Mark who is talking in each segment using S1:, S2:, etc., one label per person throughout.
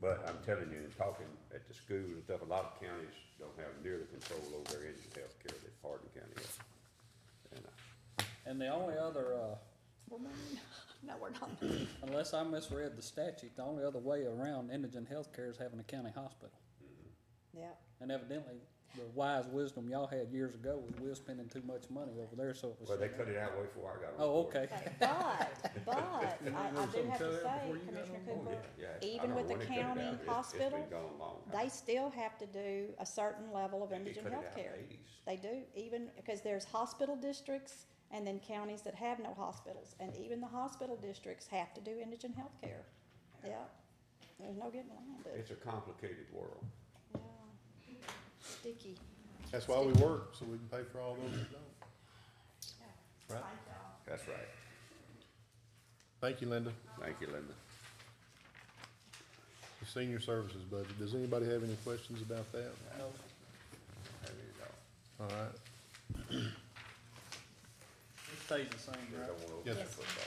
S1: But I'm telling you, in talking at the school and stuff, a lot of counties don't have nearly control over their engine health care that Hardin County has. And uh, I-
S2: And the only other, uh,
S3: We're moving. No, we're not.
S2: unless I misread the statute, the only other way around indigent healthcare is having a county hospital.
S3: Yep.
S2: And evidently, the wise wisdom y'all had years ago was we were spending too much money over there, so it was.
S1: Well, they cut it out way before I got on.
S2: Oh,
S1: board.
S2: okay.
S3: But, but, I,
S4: Didn't
S3: I
S4: you
S3: do
S4: know something
S3: have
S4: tell
S3: to
S4: that
S3: say,
S4: before you got
S3: Commissioner
S4: on
S1: Oh,
S3: Cooper,
S1: yeah, yeah. I
S3: even
S1: don't
S3: with
S1: know when
S3: the
S1: they cut it out,
S3: county
S1: but it's- It's
S3: hospital,
S1: been gone long.
S3: they still have to do a certain level of
S1: They
S3: indigent
S1: cut it out in
S3: health
S1: the
S3: care.
S1: 80s.
S3: They do, even, because there's hospital districts and then counties that have no hospitals, and even the hospital districts have to do indigent health care. Yeah, there's no getting around it.
S1: It's a complicated world.
S3: Yeah. Sticky.
S4: That's why we work, so we can pay for all those that don't. Right.
S1: That's right.
S4: Thank you, Linda.
S1: Thank you, Linda.
S4: The senior services budget. Does anybody have any questions about that?
S1: Have it all.
S4: All right.
S2: It stays the same,
S1: You
S2: right?
S1: don't wanna open
S4: Yes.
S1: that football.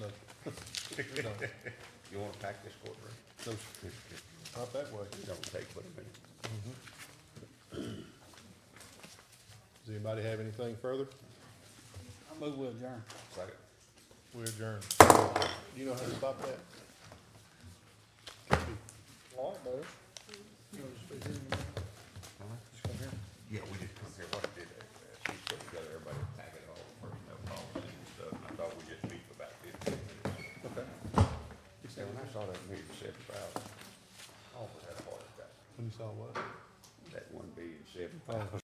S4: No. We don't.
S1: You wanna pack this courtroom?
S4: No, sir. Not that way.
S1: Don't take but a minute.
S4: Does anybody have anything further?
S2: I move we adjourn.
S1: Second.
S4: We adjourn. You know how to stop that?
S2: Law does.
S1: Yeah, we just come here, what did, uh, she put together everybody to pack it all, personnel policy and stuff, and I thought we'd just meet for about fifteen minutes.
S4: Okay.
S1: And when I saw that meeting, seven thousand, Oh, I almost had a heart attack,
S4: When you saw what?
S1: that one being seven
S4: Oh.